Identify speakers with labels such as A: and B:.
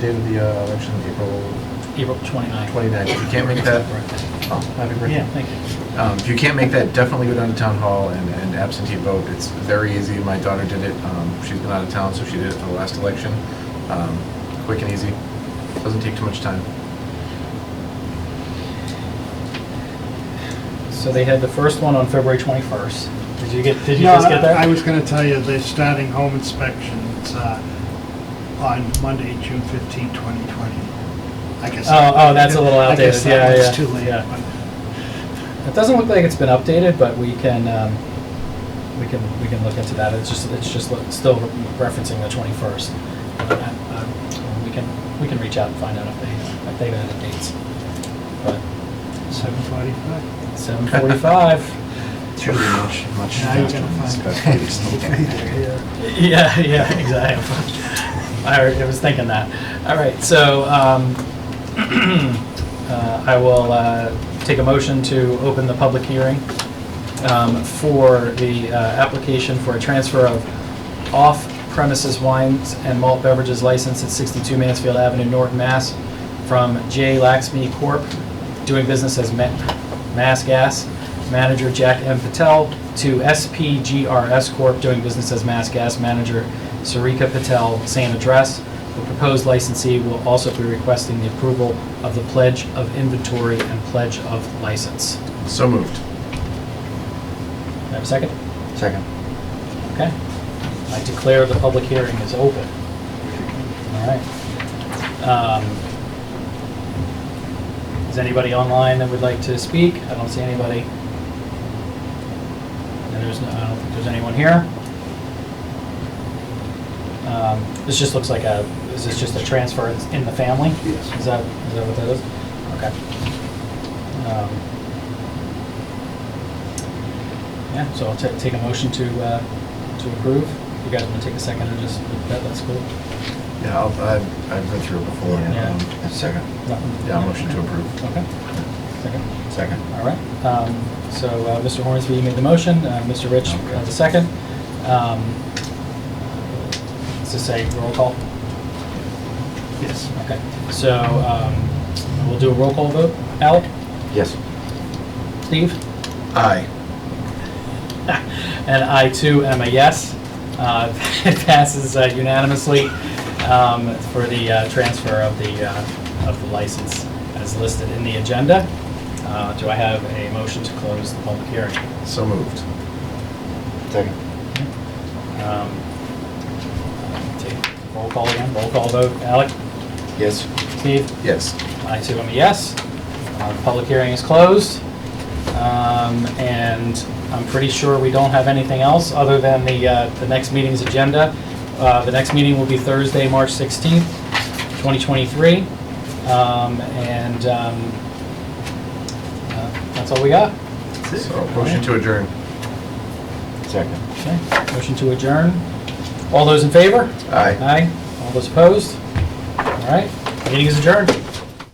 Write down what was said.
A: Date of the uh, election, April
B: April 29th.
A: 29th. If you can't make that, oh, happy
B: Yeah,
A: birthday.
B: thank you.
A: Um, If you can't make that, definitely go down to town hall and and absentee vote. It's very easy. My daughter did it. Um, She's been out of town, so she did it for the last election. Um, Quick and easy. Doesn't take too much time.
B: So they had the first one on February 21st. Did you get, did you
C: No,
B: just get that?
C: I I was gonna tell you, they're starting home inspection, it's, uh, on Monday, June fifteenth, twenty twenty. I guess.
B: Oh, oh, that's a little
C: I
B: outdated.
C: guess
B: Yeah,
C: that one's
B: yeah,
C: too late,
B: yeah.
C: but
B: It doesn't look like it's been updated, but we can, um, we can, we can look into that. It's just, it's just look- still referencing the 21st. Uh, um, We can, we can reach out and find out if they, if they've added dates. But
C: seven forty-five.
B: 7:45.
A: It's really much, much
C: Now you're
A: faster
C: gonna
A: than
C: find.
A: expected.
B: Yeah, yeah, exactly. I I was thinking that. All right, so um, uh, I will uh, take a motion to open the public hearing um, for the uh, application for a transfer of off-premises wines and malt beverages license at 62 Mansfield Avenue, Norton, Mass. from J. Laxmi Corp., doing business as Ma- Mass Gas, manager Jack M. Patel, to SPGRS Corp., doing business as Mass Gas, manager Sarika Patel, same address. The proposed licensee will also be requesting the approval of the pledge of inventory and pledge of license.
A: So moved.
B: Can I Have a second?
A: Second.
B: Okay. I declare the public hearing is open. All right. Um, Is anybody online that would like to speak? I don't see anybody. And there's, no- I don't think there's anyone here. Um, This just looks like a, is this just a transfer It's in the family?
C: Yes.
B: Is that, is that what that is? Okay. Um, yeah, so I'll ta- take a motion to, uh, to approve. You guys want to take a second and just, that, that's cool?
A: Yeah, I'll- I've I've been through it before.
B: Yeah.
A: Um,
D: Second,
B: Nothing?
A: Yeah, motion to approve.
B: Okay, second,
D: second.
B: all right. Um, So uh, Mr. Hornsby made the motion, uh, Mr. Rich uh, the second. Um, Does this say roll call?
C: Yes.
B: Okay, so um, we'll do a roll call vote. Alec?
D: Yes.
B: Steve?
A: Aye.
B: And I too am a yes. Uh, It passes uh, unanimously um, for the uh, transfer of the, uh, of the license as listed in the agenda. Uh, Do I have a motion to close the public hearing?
A: So moved.
D: Second.
B: Um, uh, take Roll call again, roll call vote. Alec?
D: Yes.
B: Steve?
A: Yes.
B: I too am a yes. Uh, the Public hearing is closed. Um, And I'm pretty sure we don't have anything else other than the, uh, the next meeting's agenda. Uh, The next meeting will be Thursday, March 16th, 2023. Um, And um, uh, that's all we got.
A: So motion to adjourn.
D: Second.
B: Okay, motion to adjourn. All those in favor?
A: Aye.
B: Aye. All those opposed? All right, meeting is adjourned.